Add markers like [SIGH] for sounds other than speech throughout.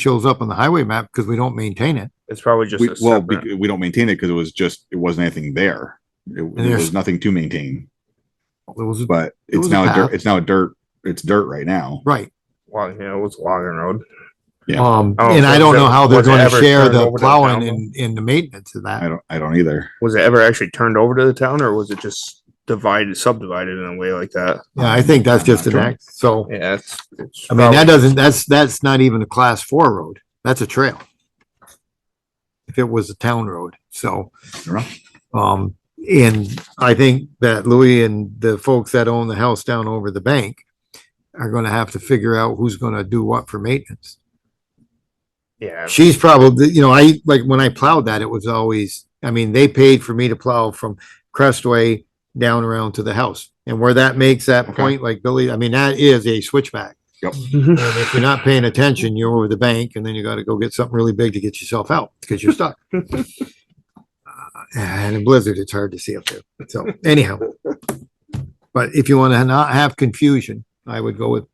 shows up on the highway map because we don't maintain it. It's probably just We, a well, separate. bec- we don't maintain it because it was just, it wasn't anything there. It, there there's- was nothing to maintain, It was, but It it's was a now, a dirt, path. it's now a dirt, it's dirt right now. right. Long, you know, it was Logan Road. Yeah. Um, I don't and I think don't know that how they're Oh, was going to ever share turned the over to the plowing town. and, and the maintenance of I that. don't, I don't either. Was it ever actually turned over to the town or was it just divided, subdivided in a way like that? Yeah, I think that's I'm not just an sure. act. So, Yeah, it's. it's I mean, probably- that doesn't, that's, that's not even a class four road. That's a trail. If it was a town road, so. You're right. Um, and I think that Louis and the folks that own the house down over the bank are gonna have to figure out who's gonna do what for maintenance. Yeah, She's probably, you know, I, like, when I plowed that, it was always, I mean, they paid for me to plow from Crestway down around to the house. And where that makes that Okay. point, like Billy, I mean, that is a switchback. And if you're not paying attention, you're over the bank and then you gotta go get something really big to get yourself out because you're stuck. Uh, And in blizzard, it's hard to see up there. So anyhow. But if you wanna not have confusion, I would go with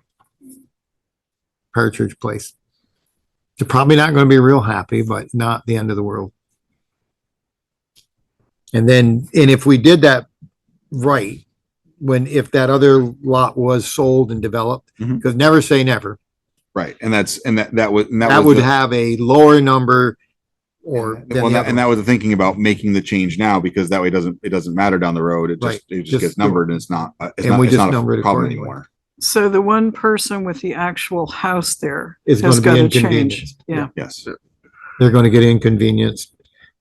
Partridge Place. They're probably not gonna be real happy, but not the end of the world. And then, and if we did that right, when, if that other lot was sold and developed, Mhm. because never say never, Right. And that's, and that, that was, and that that was. would the- have a lower number or and that- than well, the that- other. And that one. was the thinking about making the change now because that way it doesn't, it doesn't matter down the road. It Right. just, it just Just gets the- numbered and it's not, uh, it's And not, we it's just not number it a problem accordingly. anymore. So the one person with the actual house there Is has got gonna be to change. inconvenienced. Yeah. Yes. They're gonna get inconvenienced.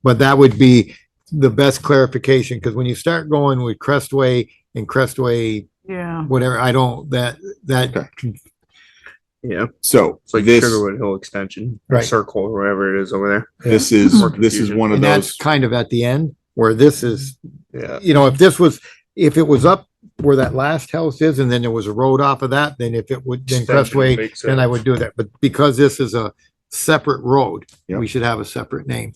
But that would be the best clarification, because when you start going with Crestway and Crestway, Yeah. whatever, I don't, that, that, Okay. [LAUGHS] yeah, So it's like this, Sugarwood Hill Extension, Right. Circle, or whatever it is over this is, More this is confusion. one of and that's those. kind of at the end where this is there. Yeah, you know, if this was, if it was up where that last house is and then there was a road off of that, then if it would, then Extension Crestway, makes then I would do that. But because this is a separate road, Yeah. we should have a separate name.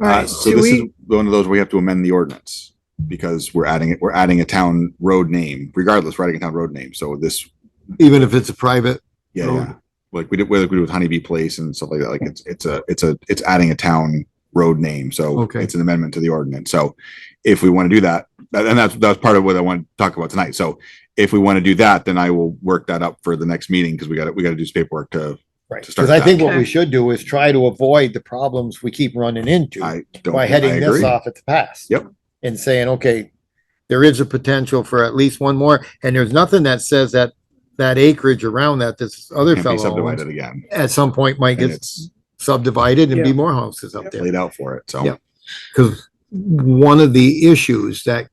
All Uh, right. so do this is we- one of those we have to amend the ordinance because we're adding it, we're adding a town road name, regardless, we're adding a town road name. So this, Even if it's a private, yeah, Road. yeah. Like we did, whether we do with Honeybee Place and stuff like that, like it's, it's a, it's a, it's adding a town road name. So Okay. it's an amendment to the ordinance. So if we want to do that, that- and that's, that's part of what I want to talk about tonight. So if we want to do that, then I will work that up for the next meeting because we got to, we got to do some paperwork to, right? To start Because I think that. what we Okay. should do is try to avoid the problems we keep running into I don't. by I heading this agree. off at the pass. Yep. And saying, okay, there is a potential for at least one more. And there's nothing that says that, that acreage around that this other Can't be fellow owns subdivided again. at some point might get And it's subdivided and be Yeah. more houses up there. laid out for it. So. Yeah. Because one of the issues that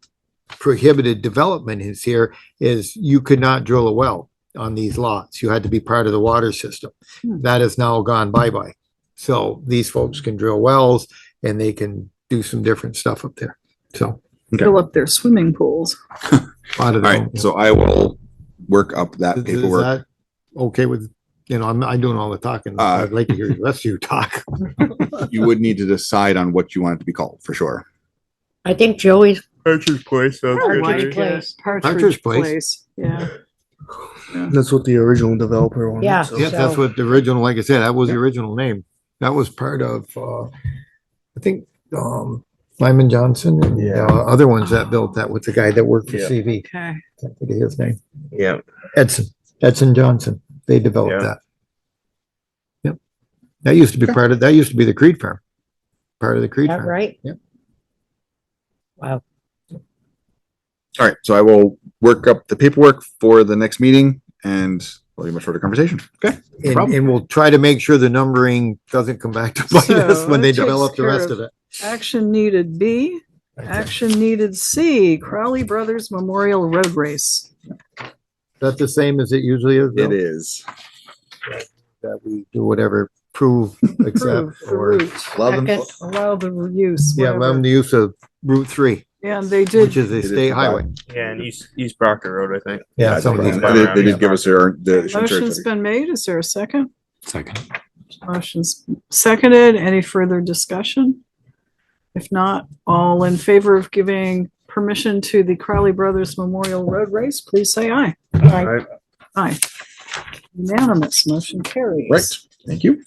prohibited development is here is you could not drill a well on these lots. You had to be part of the water system. Hmm. That has now gone bye-bye. So these folks can drill wells and they can do some different stuff up there. So Fill up their swimming pools. a lot of All right, them- so I will work up that Is- is paperwork. that Okay with, you know, I'm, I'm doing all the talking. Uh, I'd like to hear the rest of you talk. You would need to decide on what you want it to be called for sure. I think Joey's Partridge Place. sounds I good to like me. it. Partridge Partridge Place. Place. Yeah. That's what the original developer wanted. Yeah. so- Yeah, that's So- what the original, like I said, that was the original name. That was part of, uh, I think, um, Lyman Johnson and uh, Yeah. other ones that built that with the guy that worked for Yeah. CV. [LAUGHS] Okay. Can't think of his name. Yeah. Edson, Edson Johnson. They developed Yeah. that. Yep. That used to be Okay. part of, that used to be the Creed firm. Part of the Creed that firm. right? Yep. Wow. All right, so I will work up the paperwork for the next meeting and we'll have a shorter conversation. Okay. And, problem. and we'll try to make sure the numbering doesn't come back to [LAUGHS] bite us So, when they that takes develop the care rest of- of it. Action needed B. Is Action needed C. Crowley Brothers Memorial Road Race. that the same as it usually is? Bill? It is. That we do whatever, prove, Approve accept, the or. route. Love and- Second. Allow the use. Yeah, allow them whatever. the use of Route Three, And they did which is a is state highway. Yeah, and East, East Proctor Road, I think. Yeah, some of They these. they- they did give us their, the. Motion's been made. Is there a second? Second. Motion's seconded. Any further discussion? If not, all in favor of giving permission to the Crowley Brothers Memorial Road Race, please say aye. All right. Aye. Unanimous, motion Right. carries. Thank you.